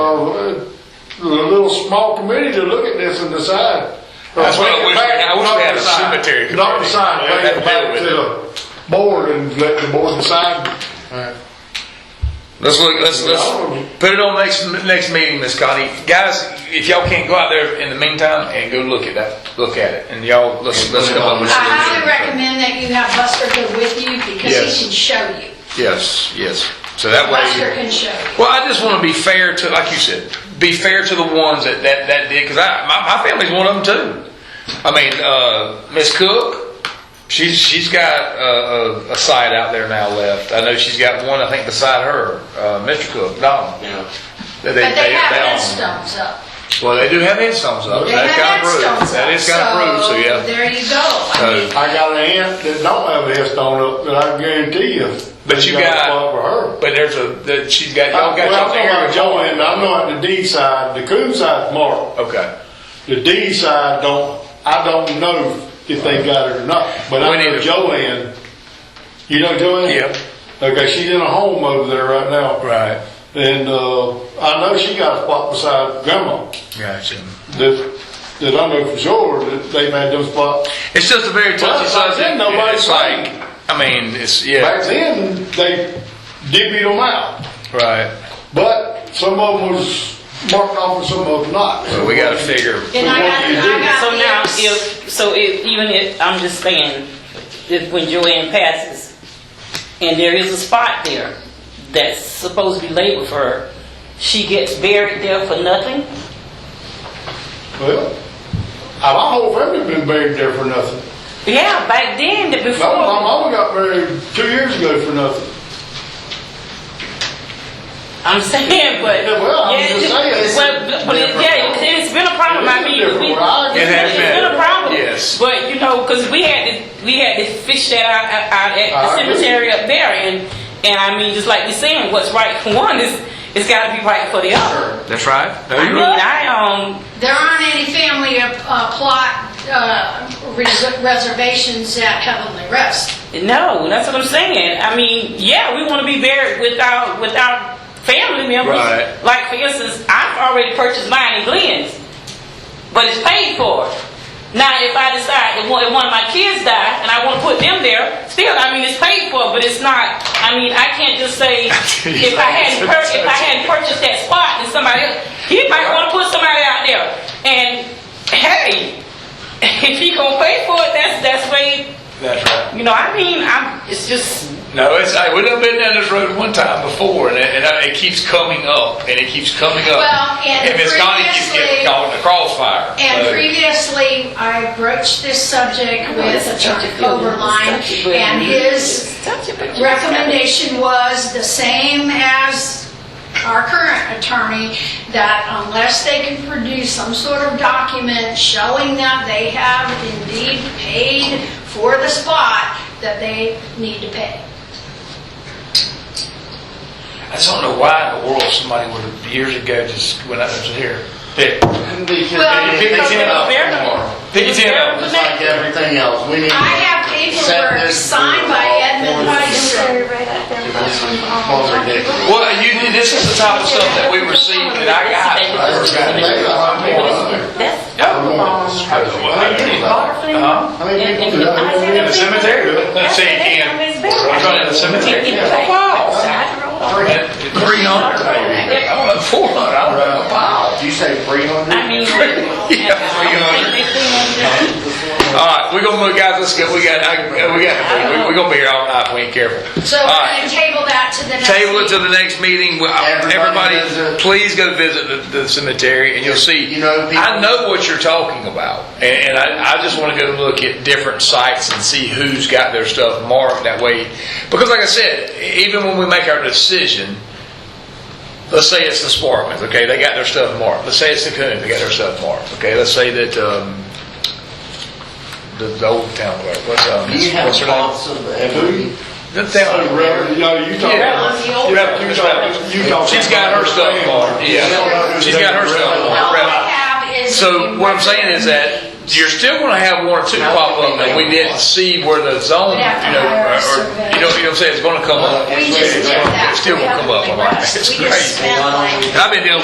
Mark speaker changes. Speaker 1: know, uh, the little small committee to look at this and decide.
Speaker 2: That's what I wish- I wish we had a cemetery
Speaker 1: cemetery. Not
Speaker 2: committee.
Speaker 1: decide,
Speaker 2: We'd
Speaker 1: bring
Speaker 2: have
Speaker 1: it
Speaker 2: to
Speaker 1: back to
Speaker 2: deal
Speaker 1: the board and let the board decide.
Speaker 2: Let's look, let's, let's, put it on next, next meeting, Miss Connie. Guys, if y'all can't go out there in the meantime and go look at that, look at it, and y'all, let's, let's come up with
Speaker 3: I highly
Speaker 2: solutions.
Speaker 3: recommend that you have Buster go with you because
Speaker 2: Yes.
Speaker 3: he can show you.
Speaker 2: Yes, yes, so that
Speaker 3: Buster
Speaker 2: way.
Speaker 3: can show you.
Speaker 2: Well, I just wanna be fair to, like you said, be fair to the ones that, that, that did, cause I, my, my family's one of them too. I mean, uh, Miss Cook, she's, she's got a, a, a site out there now left. I know she's got one, I think, beside her, uh, Mr. Cook, Donald.
Speaker 4: Yeah.
Speaker 2: But
Speaker 3: But they have headstones up.
Speaker 2: Well, they do have headstones up.
Speaker 3: They
Speaker 2: That's
Speaker 3: have
Speaker 2: got approved.
Speaker 3: headstones up.
Speaker 2: That is got approved, so yeah.
Speaker 3: There you go. I mean,
Speaker 2: So,
Speaker 1: I got an aunt that don't have a headstone up, that I guarantee you.
Speaker 2: But you
Speaker 1: they a
Speaker 2: got-
Speaker 1: spot for her.
Speaker 2: but there's a, that she's got,
Speaker 1: Well,
Speaker 2: y'all
Speaker 3: Uh,
Speaker 2: got
Speaker 1: I'm
Speaker 2: y'all
Speaker 1: talking about
Speaker 2: area.
Speaker 1: Joanne, I know at the D side, the Coon side's marked.
Speaker 2: Okay.
Speaker 1: The D side don't, I don't know if they got it or not, but
Speaker 2: We
Speaker 1: I
Speaker 2: need
Speaker 1: know
Speaker 2: to-
Speaker 1: Joanne. You know Joanne?
Speaker 2: Yep.
Speaker 1: Okay, she's in a home over there right now.
Speaker 2: Right.
Speaker 1: And, uh, I know she got a spot beside Grandma,
Speaker 2: Gotcha.
Speaker 1: that, that I know for sure that they made them spots.
Speaker 2: It's just a very
Speaker 1: Well,
Speaker 2: touchy
Speaker 1: back
Speaker 2: subject.
Speaker 1: then, nobody
Speaker 2: It's like, I mean, it's,
Speaker 1: Back
Speaker 2: yeah,
Speaker 1: then, they divvied them out,
Speaker 2: right.
Speaker 1: but some of them was marked off and some of them not.
Speaker 2: So we gotta figure.
Speaker 3: And I got, I got.
Speaker 5: So now,
Speaker 3: this.
Speaker 5: if, so if, even if, I'm just saying, if when Joanne passes, and there is a spot there that's supposed to be labeled for her, she gets buried there for nothing?
Speaker 1: Well, I- my whole family been buried there for nothing.
Speaker 5: Yeah, back then, the-
Speaker 1: My, my
Speaker 5: before,
Speaker 1: mama got married two years ago for nothing.
Speaker 5: I'm saying, but.
Speaker 1: Yeah, well, I'm
Speaker 5: yeah,
Speaker 1: just
Speaker 5: it-
Speaker 1: saying, it's
Speaker 5: But, but- but, it- yeah, it- it's been a problem,
Speaker 1: It is
Speaker 5: I
Speaker 1: a
Speaker 5: mean,
Speaker 1: different
Speaker 5: we.
Speaker 1: world. It
Speaker 2: has
Speaker 5: it's
Speaker 2: been.
Speaker 5: a problem.
Speaker 2: Yes.
Speaker 5: But, you know, cause we had to, we had to fish that out, out at
Speaker 1: I
Speaker 5: the
Speaker 1: agree.
Speaker 5: cemetery up there, and, and I mean, just like you're saying, what's right for one is, it's gotta be right for the other.
Speaker 2: That's right. No,
Speaker 5: I
Speaker 2: you're
Speaker 5: mean,
Speaker 2: right.
Speaker 5: I, um,
Speaker 3: There aren't any family uh, plot uh, res- reservations at Heavenly Rest.
Speaker 5: no, that's what I'm saying, I mean, yeah, we wanna be buried without, without family members.
Speaker 2: Right.
Speaker 5: Like, for instance, I've already purchased mine in Glenn's. but it's paid for. Now, if I decide if one, if one of my kids die and I want to put them there, still, I mean, it's paid for, but it's not. I mean, I can't just say if I hadn't pur- if I hadn't purchased that spot and somebody else, he might want to put somebody out there. And hey, if he gonna pay for it, that's that's way.
Speaker 2: That's right.
Speaker 5: You know, I mean, I'm. It's just
Speaker 2: No, it's, I, we done been down this road one time before and it, and I- it keeps coming up and it keeps coming up.
Speaker 3: Well, and
Speaker 2: Miss Connie keeps getting
Speaker 3: previously-
Speaker 2: caught in the crossfire.
Speaker 3: And
Speaker 2: So-
Speaker 3: previously, I broached this subject with
Speaker 5: it's such a
Speaker 3: Attorney
Speaker 5: feeling.
Speaker 3: Overline,
Speaker 5: It's such a feeling.
Speaker 3: and his
Speaker 5: Touch it, but you just gotta-
Speaker 3: recommendation was the same as our current attorney, that unless they can produce some sort of document showing that they have indeed paid for the spot, that they need to pay.
Speaker 2: I just don't know why in the world somebody would have years ago just went out there and said, here, pick,
Speaker 3: Well,
Speaker 4: Pick
Speaker 2: because
Speaker 4: it
Speaker 2: it was
Speaker 4: up
Speaker 5: very-
Speaker 4: tomorrow.
Speaker 2: pick your ten up.
Speaker 4: Just like everything else, we need. to
Speaker 3: I have
Speaker 4: set
Speaker 3: paperwork
Speaker 4: this
Speaker 3: signed by Edmund
Speaker 4: protocol for
Speaker 3: Weiss.
Speaker 4: this.
Speaker 2: Well, you, this is the type of stuff that we received that I got.
Speaker 5: That's
Speaker 2: Huh?
Speaker 1: How many people do
Speaker 5: I
Speaker 1: that?
Speaker 5: said
Speaker 2: In the cemetery? Let's see, can, I'm going to the cemetery. Three hundred, maybe. I don't know, four hundred, I don't know, wow.
Speaker 4: Did you say three hundred?
Speaker 5: I mean, yeah,
Speaker 2: All right, we're gonna look, guys, let's go, we got, I- we got, we're gonna be here all night, we ain't careful.
Speaker 3: So
Speaker 2: All
Speaker 3: we're
Speaker 2: right.
Speaker 3: going to table that to the next
Speaker 2: Table it to
Speaker 3: meeting.
Speaker 2: the next meeting. Well, I-
Speaker 4: Everybody
Speaker 2: Everybody,
Speaker 4: visit.
Speaker 2: please go visit the, the cemetery and you'll see.
Speaker 4: You know, people-
Speaker 2: I know what you're talking about. And, and I, I just want to go look at different sites and see who's got their stuff marked that way. Because like I said, e-, even when we make our decision, let's say it's the Sparkmans, okay, they got their stuff marked. Let's say it's the Coons, they got their stuff marked. Okay, let's say that, um, the, the old town, clerk, what's, um,
Speaker 4: Do you have
Speaker 2: what's her name?
Speaker 4: thoughts of every?
Speaker 2: The town.
Speaker 1: So, Oh, Reverend, you know, you talking about.
Speaker 2: Yeah. Yeah,
Speaker 1: You
Speaker 2: that's
Speaker 1: talking-
Speaker 2: right.
Speaker 1: you talking
Speaker 2: She's got her
Speaker 1: about
Speaker 2: stuff
Speaker 1: family.
Speaker 2: marked, yeah. She's got her stuff
Speaker 3: All
Speaker 2: marked.
Speaker 3: I have is.
Speaker 2: So what I'm saying is that you're still gonna have one or two pop up that we didn't see where the zone, you know, or, or- you know, you know what I'm saying, it's gonna come up.
Speaker 3: We just did that.
Speaker 2: It's still gonna come up, I'm like,
Speaker 3: We
Speaker 2: it's
Speaker 3: just
Speaker 2: crazy.
Speaker 3: spent like.
Speaker 2: I've been dealing